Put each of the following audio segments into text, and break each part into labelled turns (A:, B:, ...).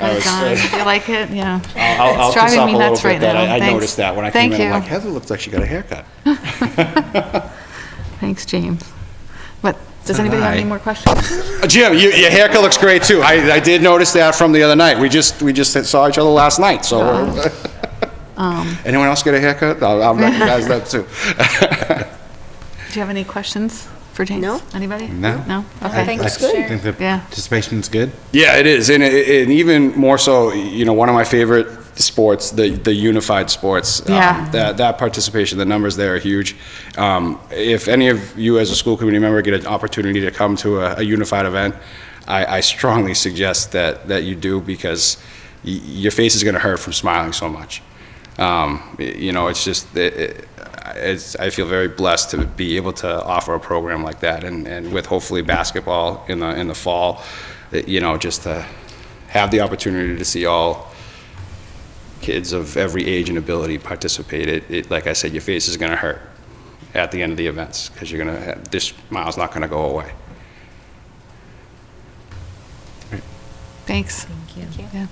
A: I
B: it,
A: was
B: John.
A: Oh, like-
B: You like it? Yeah.
A: I'll, I'll
B: It's
A: just
B: driving
A: up a
B: me
A: little
B: nuts
A: bit
B: right
A: that I-
B: now.
A: I
B: Thanks.
A: noticed that when I came
B: Thank
A: in, I'm like,
B: you.
A: Heather looks like she got a haircut.
B: Thanks, James. What, does anybody have any
C: Hi.
B: more questions?
A: Uh, Jim, you- your haircut looks great too. I, I did notice that from the other night. We just, we just saw each other last night, so. uh,
B: Um,
A: Anyone else get a haircut? I'll I'll recognize that too.
B: Do you have any questions for James?
D: No.
B: Anybody?
C: No.
B: No? Okay.
D: Thanks, good.
C: think the
B: Yeah.
C: participation's good.
A: Yeah, it is, and, it, and even more so, you know, one of my favorite sports, the the unified sports. um,
B: Yeah.
A: that that participation, the numbers there are huge. Um, if any of you as a school committee member get an opportunity to come to a, a unified event, I, I strongly suggest that that you do because y- your face is going to hurt from smiling so much. Um, y- you know, it's just it, it, it's, I feel very blessed to be able to offer a program like that, and, and with hopefully basketball in the in the fall, that, you know, just to have the opportunity to see all kids of every age and ability participate. It, it like I said, your face is going to hurt at the end of the events because you're going to have, this smile's not going to go away.
B: Thanks. Yeah.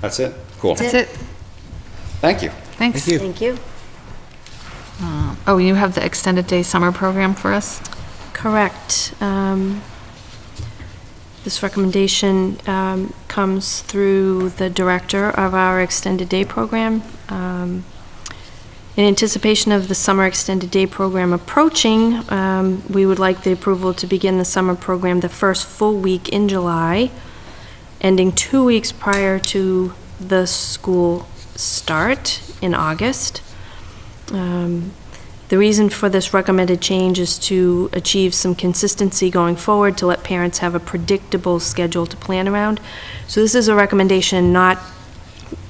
A: That's it. Cool.
B: That's it.
A: Thank you.
B: Thanks.
D: Thank you.
B: Oh, you have the extended day summer program for us?
D: Correct. Um, This recommendation um, comes through the director of our extended day program. Um, In anticipation of the summer extended day program approaching, um, we would like the approval to begin the summer program the first full week in July, ending two weeks prior to the school start in August. Um, The reason for this recommended change is to achieve some consistency going forward, to let parents have a predictable schedule to plan around. So this is a recommendation not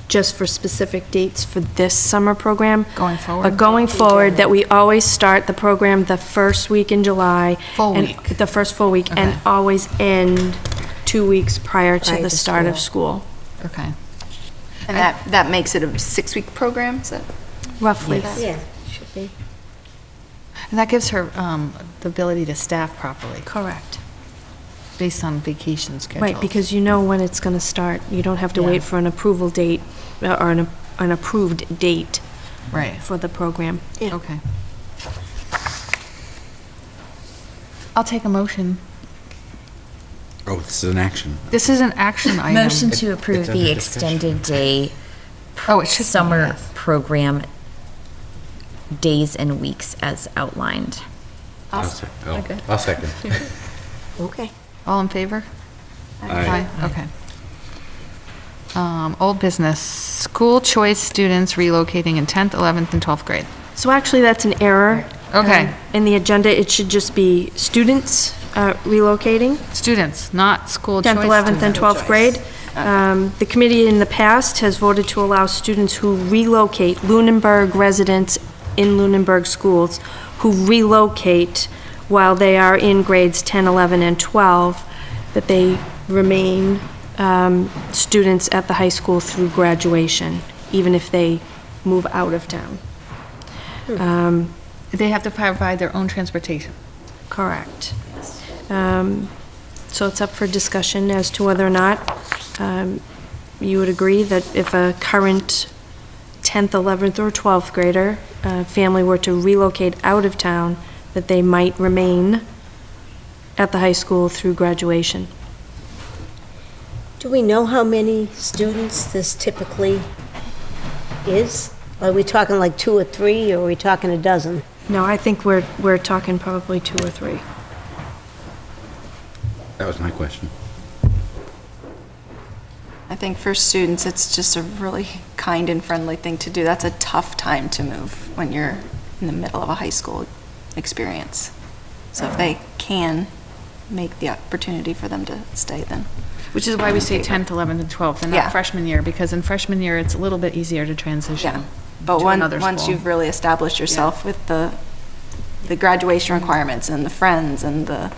D: just for specific dates for this summer program.
B: Going forward.
D: But going forward, that we always start the program the first week in July.
B: Full
D: and-
B: week.
D: The first full week, and
B: Okay.
D: always end two weeks prior to
E: Prior
D: the
E: to
D: start of school,
B: Okay.
E: And that, that makes it a six-week program, is that?
D: roughly.
E: Yeah, should be.
B: And that gives her um, the ability to staff properly
D: Correct.
B: based on vacation schedules.
D: Right, because you know when it's going to start. You don't have to
B: Yeah.
D: wait for an approval date, uh, or an an approved date
B: Right.
D: for the program.
B: Okay. I'll take a motion.
C: Oh, this is an action.
B: This is an action item.
E: Motion to
C: It-
E: approve
C: it's under
E: the
C: discussion.
E: extended day
B: Oh, it should be,
E: summer
B: yes.
E: program days and weeks as outlined.
C: I'll sec- oh, I'll second.
E: Okay.
B: All in favor?
C: Aye.
B: Aye, Okay. Um, Old business, school choice students relocating in 10th, 11th, and 12th grade.
D: So actually, that's an error.
B: Okay.
D: um, In the agenda, it should just be students uh, relocating.
B: Students, not school choice
D: 10th, 11th, and
B: students.
D: 12th grade. Um, The committee in the past has voted to allow students who relocate, Lunenburg residents in Lunenburg schools, who relocate while they are in grades 10, 11, and 12, that they remain um, students at the high school through graduation, even if they move out of town.
B: They have to provide their own transportation.
D: Correct. Um, So it's up for discussion as to whether or not um, you would agree that if a current 10th, 11th, or 12th grader uh, family were to relocate out of town, that they might remain at the high school through graduation.
F: Do we know how many students this typically is? Are we talking like two or three, or are we talking a dozen?
D: No, I think we're, we're talking probably two or three.
C: That was my question.
G: I think for students, it's just a really kind and friendly thing to do. That's a tough time to move when you're in the middle of a high school experience. So if they can make the opportunity for them to stay, then.
B: Which is why we say 10th, 11th, and 12th, and
G: Yeah.
B: not freshman year, because in freshman year, it's a little bit easier to
G: Yeah.
B: transition.
G: But
B: to
G: one,
B: another
G: once
B: school.
G: you've really established yourself with the, the graduation requirements and the friends and the,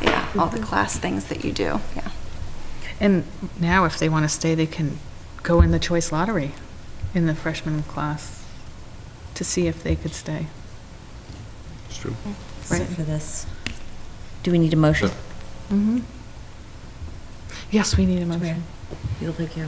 G: yeah, all
B: Mm-hmm.
G: the class things that you do, yeah.
B: And now, if they want to stay, they can go in the choice lottery in the freshman class to see if they could stay.
C: It's true.
E: So
B: Right.
E: for this, do we need a motion?
B: Mm-hmm. Yes, we need a motion.
E: You'll pick your